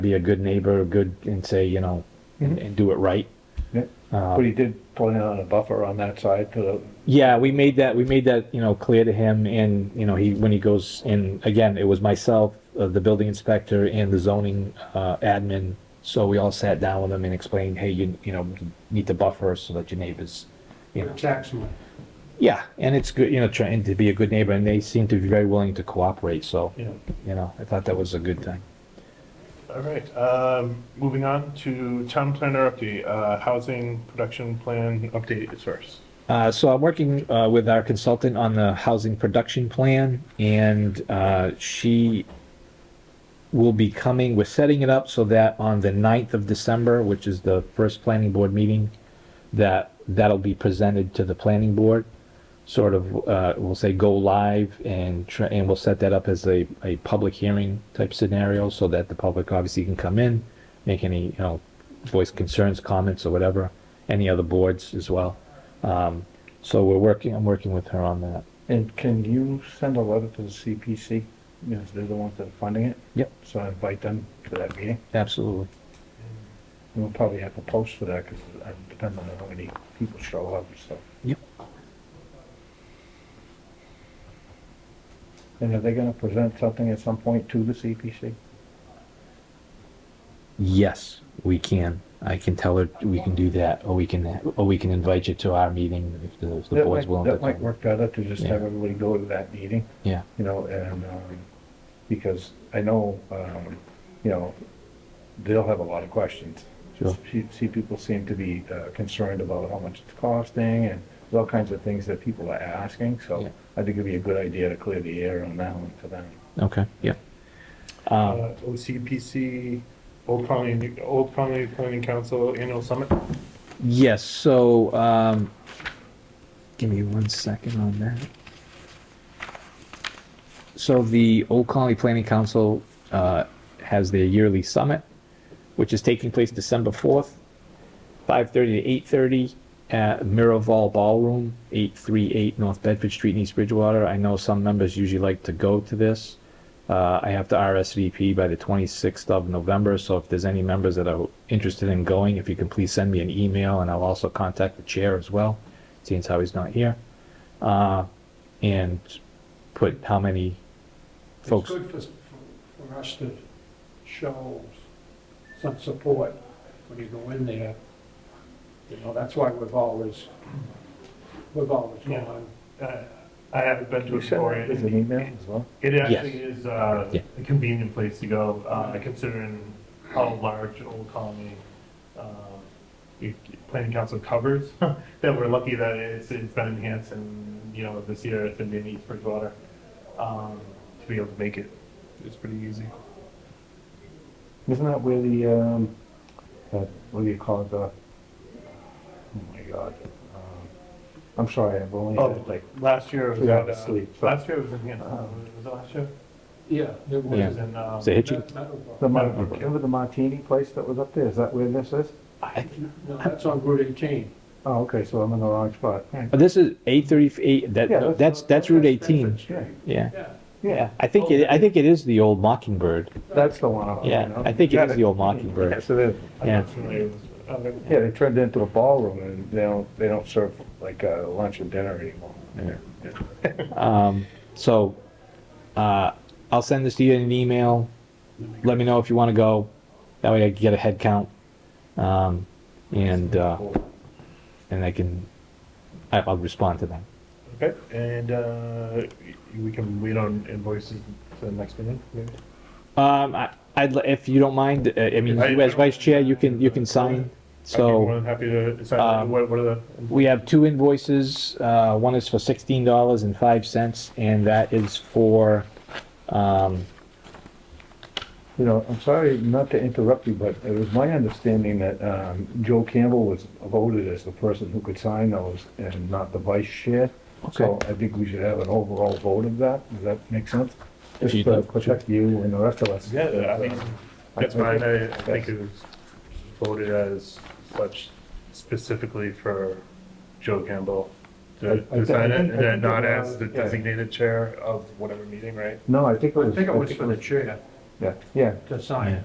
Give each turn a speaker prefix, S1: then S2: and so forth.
S1: be a good neighbor, good, and say, you know, and, and do it right.
S2: Yeah. But he did point out a buffer on that side to the,
S1: Yeah, we made that, we made that, you know, clear to him and, you know, he, when he goes in, again, it was myself, uh, the building inspector and the zoning, uh, admin. So we all sat down with him and explained, hey, you, you know, you need to buffer so that your neighbors, you know.
S3: tax money.
S1: Yeah, and it's good, you know, trying to be a good neighbor and they seem to be very willing to cooperate, so,
S4: Yeah.
S1: you know, I thought that was a good thing.
S4: All right, um, moving on to town planner update, uh, housing production plan update is first.
S1: Uh, so I'm working uh, with our consultant on the housing production plan, and uh, she will be coming. We're setting it up so that on the 9th of December, which is the first planning board meeting, that that'll be presented to the planning board. Sort of, uh, we'll say go live, and tr- and we'll set that up as a, a public hearing type scenario, so that the public obviously can come in, make any you know, voice concerns, comments, or whatever. Any other boards as well. Um, so we're working, I'm working with her on that.
S2: and can you send a letter to the CPC? Because they're the ones that are funding it.
S1: Yep.
S2: So I invite them to that meeting.
S1: Absolutely.
S2: And We'll probably have to post for that because it depends on how many people show up and stuff.
S1: Yep.
S2: And are they gonna present something at some point to the CPC?
S1: Yes, we can. I can tell her we can do that, or we can, or we can invite you to our meeting if the, if the
S2: That
S1: board's
S2: might-
S1: willing to.
S2: That might
S1: come.
S2: work better to just
S1: Yeah.
S2: have everybody go to that meeting.
S1: Yeah,
S2: you know, and, um, because I know, um, you know, they'll have a lot of questions.
S1: Sure.
S2: See, see, people seem to be uh, concerned about how much it's costing and there's all kinds of things that people are asking,
S1: Yeah.
S2: so I think it'd be a good idea to clear the air on that one for them.
S1: okay, yeah.
S4: Uh, OCPC, Old Colony, Old Colony Planning Council Annual Summit.
S1: Yes, so, um, give me one second on that. So the Old Colony Planning Council, uh, has their yearly summit, which is taking place December fourth, five thirty to eight thirty at Miraval Ballroom, eight three eight North Bedford Street in East Bridgewater. I know some members usually like to go to this. Uh, I have to RSVP by the twenty-sixth of November, so if there's any members that are interested in going, if you can please send me an email and I'll also contact the chair as well, seeing as how he's not here. Uh, and put how many
S3: It's
S1: folks,
S3: good for, for- for us to show some support when you go in there. You know, that's why we've always, we've always
S4: Yeah.
S3: gone.
S4: Uh, I haven't been to
S2: You
S4: it
S2: send
S4: before.
S2: that as an email as well?
S4: It actually is uh,
S1: Yeah.
S4: a convenient place to go, uh, considering how large Old Colony um, it- Planning Council covers. That we're lucky that it's, it's been enhanced and, you know, this year it's been in East Bridgewater. um, To be able to make it, it's pretty easy.
S2: Isn't that where the, um, uh, what do you call it, the, oh my God. um, I'm sorry, I've only
S4: Oh,
S2: had like,
S4: last year it was,
S2: Three
S4: at,
S2: hours
S4: uh,
S2: sleep, so-
S4: last year it was enhanced, uh, was it last year?
S3: Yeah, it
S4: It
S3: was.
S4: was in, um,
S1: is it Hitchy?
S3: That metal bar.
S2: the, Mar- remember the martini place that was up there? Is that where this is?
S3: No, that's on Route 18.
S2: Oh, okay, so I'm in the wrong spot. All right.
S1: Oh, This is eight thirty-eight, that,
S2: Yeah, that's-
S1: that's, that's Route
S3: That's
S1: eighteen,
S3: Bedford Street.
S1: yeah.
S3: Yeah.
S1: Yeah, I think it, I think it is the old Mockingbird.
S2: That's the one. I'm
S1: Yeah,
S2: thinking of.
S1: I think it
S2: Yeah,
S1: is
S2: they-
S1: the old Mockingbird.
S2: Yes, it is.
S4: I'm
S1: Yeah.
S4: not familiar with- okay.
S2: Yeah, they turned it into a ballroom and they don't, they don't serve like uh, lunch and dinner anymore.
S1: Um, so, uh, I'll send this to you in an email. Let me know if you want to go. That way I can get a head count. Um, and, uh, and I can, I- I'll respond to them.
S4: Okay, and uh, we can wait on invoices for the next meeting, maybe?
S1: Um, I, I'd, li- if you don't mind, uh, I mean,
S4: I-
S1: you as vice chair, you can, you can sign.
S4: I'd
S1: So.
S4: be more than happy to
S1: um,
S4: sign, what, what are the?
S1: We have two invoices, uh, one is for sixteen dollars and five cents, and that is for, um,
S2: You know, I'm sorry not to interrupt you, but it was my understanding that um, Joe Campbell was voted as the person who could sign those and not the vice chair. So I think we should have an overall vote of that. Does that make sense?
S1: If
S2: Just
S1: you
S2: to
S1: do.
S2: protect you and the rest of us.
S4: Yeah, I mean, that's
S2: I- I
S4: fine,
S2: think-
S4: Um, I, I think it was voted as such specifically for Joe Campbell
S2: I- I
S4: to to
S2: think-
S4: sign
S2: I
S4: it, and
S2: think- I
S4: then
S2: think
S4: not
S2: it
S4: as
S2: was-
S4: the
S2: yeah.
S4: designated chair of whatever meeting, right?
S2: No, I think it
S3: I
S2: was.
S3: think it was for the
S2: was-
S3: chair
S2: Yeah, yeah.
S3: to sign.